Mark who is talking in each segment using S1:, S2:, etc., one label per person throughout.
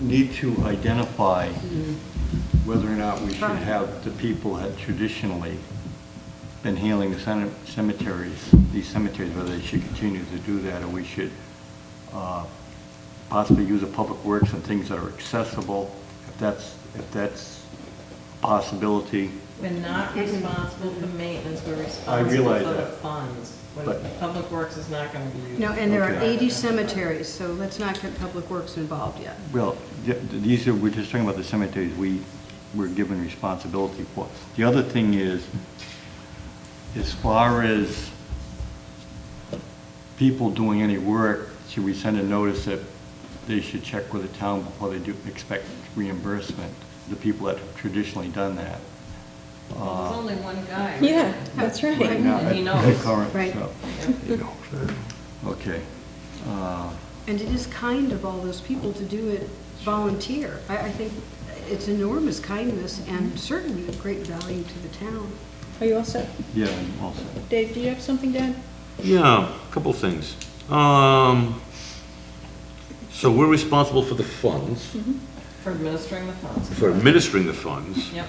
S1: need to identify whether or not we should have the people that traditionally been healing the cem- cemeteries, these cemeteries, whether they should continue to do that, or we should uh, possibly use a public works and things that are accessible, if that's, if that's a possibility.
S2: We're not
S3: Mm-hmm.
S2: responsible for maintenance, we're
S1: I
S2: responsible
S1: realize
S2: for the
S1: that.
S2: funds. When
S1: But-
S2: Public Works is not gonna be used.
S3: No, and there are
S1: Okay.
S3: 80 cemeteries, so let's not get Public Works involved yet.
S1: Well, th- these are, we're just talking about the cemeteries we were given responsibility for. The other thing is, as far as people doing any work, should we send a notice that they should check with the town before they do expect reimbursement, the people that have traditionally done that?
S2: Well,
S1: Uh,
S2: There's only one guy. right?
S4: Yeah, that's
S1: Right now,
S4: right.
S2: He
S1: at
S2: knows.
S1: the current,
S3: Right.
S1: so- Okay. Uh,
S3: And it is kind of all those people to do it volunteer. I, I think it's enormous kindness and certainly of great value to the town.
S4: Are you all set?
S1: Yeah, I'm all set.
S4: Dave, do you have something, Dan?
S5: Yeah, a couple things. Um, so we're responsible for the funds,
S2: For administering the funds.
S5: for administering the funds,
S2: Yep,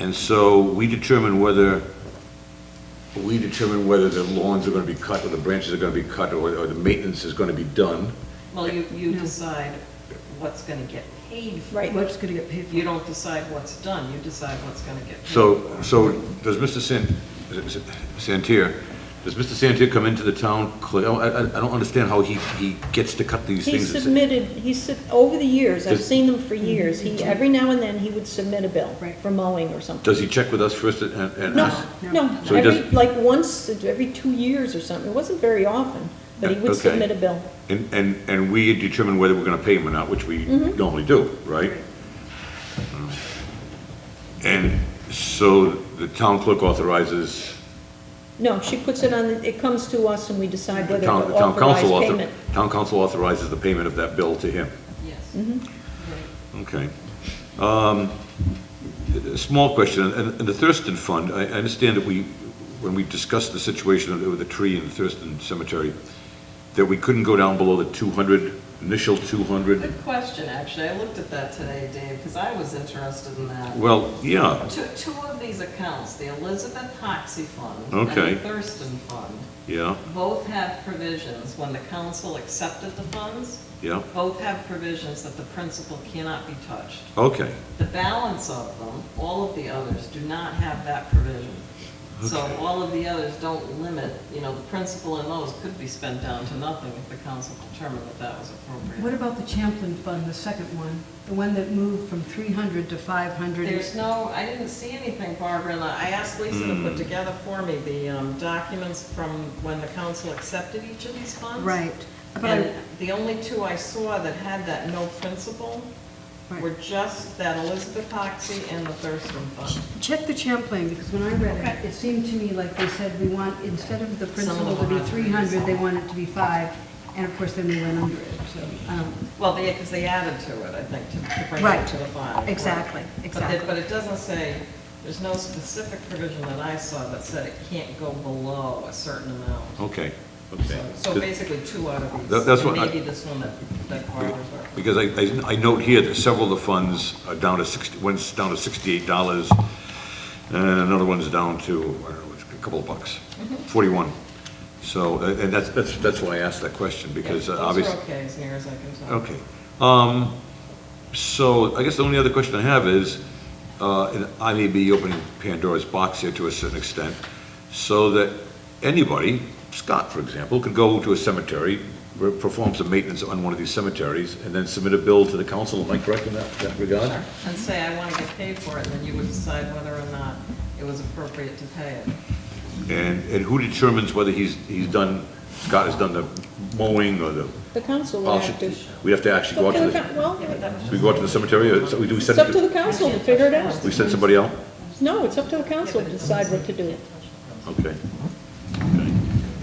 S5: and so we determine whether, we determine whether the lawns are gonna be cut, or the branches are gonna be cut, or, or the maintenance is gonna be done.
S2: well, you, you decide what's gonna get paid for.
S4: Right.
S3: What's going to get paid for?
S2: You don't decide what's done, you decide what's gonna get paid.
S5: So, so does Mr. San, is it Santier, does Mr. Santier come into the town, cle- I, I, I don't understand how he, he gets to cut these
S4: He
S5: things.
S4: submitted, he sub, over the years, I've
S5: Does-
S4: seen them for years, he, every now and then, he would submit a bill
S3: Right.
S4: for mowing or something.
S5: Does he check with us first and, and
S4: No,
S5: us?
S4: no,
S5: So he
S4: every,
S5: doesn't-
S4: like once, every two years or something, it wasn't very often, but he
S5: Yeah,
S4: would
S5: okay.
S4: submit a bill.
S5: And, and, and we determine whether we're gonna pay him or not, which we normally do, right? And so the town clerk authorizes,
S4: No, she puts it on, it comes to us and we decide
S5: the
S4: whether to
S5: town, the town
S4: authorize
S5: council author,
S4: payment.
S5: town council authorizes the payment of that bill to him.
S2: Yes.
S4: Mm-hmm.
S2: Right.
S5: Okay. Um, a Small question, and and the Thurston Fund, I I understand that we, when we discussed the situation of- with the tree in Thurston Cemetery, that we couldn't go down below the 200, initial 200.
S2: Good question, actually. I looked at that today, Dave, because I was interested in that.
S5: Well, yeah,
S2: Two, two of these accounts, the Elizabeth Hoxie Fund
S5: Okay.
S2: and the Thurston Fund,
S5: yeah,
S2: both have provisions, when the council accepted the funds,
S5: yeah,
S2: both have provisions that the principal cannot be touched.
S5: okay,
S2: The balance of them, all of the others, do not have that provision. So
S5: Okay.
S2: all of the others don't limit, you know, the principal in those could be spent down to nothing if the council determined that that was
S3: What
S2: appropriate.
S3: about the Champlin Fund, the second one? The one that moved from 300 to 500?
S2: There's no, I didn't see anything, Barbara, and I asked Lisa to
S5: Hmm.
S2: put together for me the um, documents from when the council accepted each of these funds.
S3: Right. But I-
S2: And the only two I saw that had that no principal were
S3: right.
S2: just that Elizabeth Hoxie and the Thurston Fund.
S3: Check the Champlain, because when I read it, it seemed to me like they said we want, instead of the
S2: Some of
S3: principal to
S2: them
S3: be
S2: are-
S3: 300, they want it to be 5, and of course, then they went under it, so, um, I don't know.
S2: Well, they, because they added to it, I think, to to bring it
S3: Right.
S2: to the bottom.
S3: Exactly,
S2: But it-
S3: exactly.
S2: But it doesn't say, there's no specific provision that I saw that said it can't go below a certain amount.
S5: okay,
S2: So-
S5: okay.
S2: So basically, two out of
S5: That-
S2: these,
S5: that's
S2: and
S5: what I-
S2: maybe this one that, that Barbara's referencing.
S5: Because I, I- I note here that several of the funds are down to sixty, one's down to sixty-eight dollars, and another one's down to, I don't know, it's a couple of bucks,
S2: Mm-hmm.
S5: forty-one. So, uh, and that's, that's, that's why I asked that question, because uh,
S2: Yeah,
S5: obviously.
S2: Those are okay, as near as I can tell.
S5: Okay. Um, So I guess the only other question I have is, uh, and I may be opening Pandora's box here to a certain extent, so that anybody, Scott, for example, could go to a cemetery, re- perform some maintenance on one of these cemeteries, and then submit a bill to the council. Am I correct in that that regard?
S2: Sure. And say, I want to get paid for it, and then you would decide whether or not it was appropriate to pay it.
S5: And, and who determines whether he's, he's done, Scott has done the mowing or the,
S4: The council would have to.
S5: we have to actually go out to the,
S4: Well,
S2: Yeah, but that was
S5: we go out to the cemetery, or so we do, we
S4: it's up to
S5: send,
S4: the council to figure it out.
S5: we send somebody out?
S4: No, it's up to the council to decide what to do.
S5: Okay. Okay.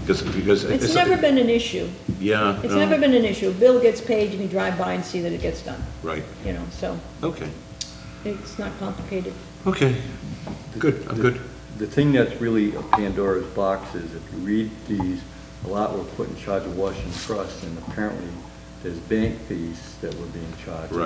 S5: Because, because.
S4: It's never been an issue.
S5: Yeah.
S4: It's
S5: no,
S4: never been an issue. Bill gets paid, and you drive by and see that it gets done,
S5: Right,
S4: you know, so
S5: okay,
S4: it's not complicated.
S5: okay, good, I'm good.
S1: The thing that's really a Pandora's box is if you read these, a lot were put in charge of Washington Trust, and apparently there's bank fees that were being charged.
S5: Right.